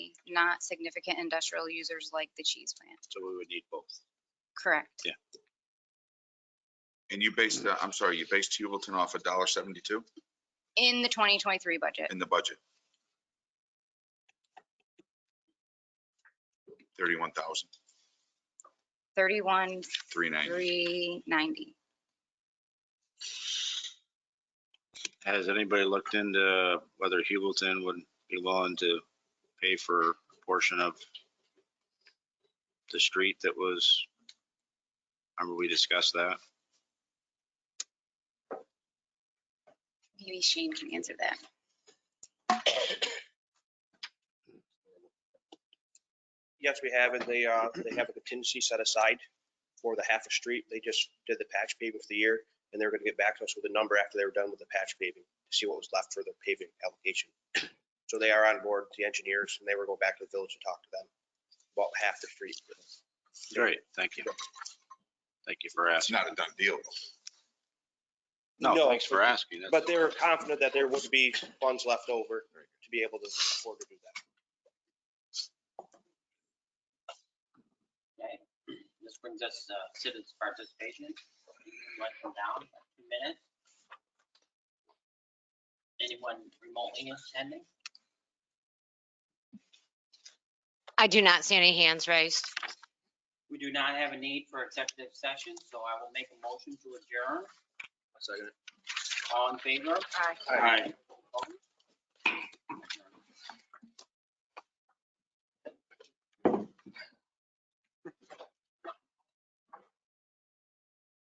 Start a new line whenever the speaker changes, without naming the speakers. not significant industrial users like the cheese plant.
So we would need both.
Correct.
Yeah.
And you based, uh, I'm sorry, you based Hubleton off a dollar seventy-two
In the 2023 budget.
in the budget? Thirty-one thousand,
31,
three ninety.
390.
Has anybody looked into whether Hubleton would be willing to pay for a portion of the street that was, remember we discussed that?
Maybe Shane can answer that.
Yes, we have, and they, uh, they have a contingency set aside for the half a street. They just did the patch paving for the year, and they're gonna get back to us with a number after they were done with the patch paving, to see what was left for the paving application. So they are on board, the engineers, and they were going back to the village to talk to them about half the street.
Great, thank you. Thank you for
It's
asking.
not a done deal.
No,
No,
thanks for asking. That's-
But they were confident that there would be funds left over to be able to afford to do that.
Okay, this brings us to citizens participation. Went from down two minutes. Anyone remotely attending?
I do not see any hands raised.
We do not have a need for executive session, so I will make a motion to adjourn.
Second.
All in favor?
Aye.
Aye.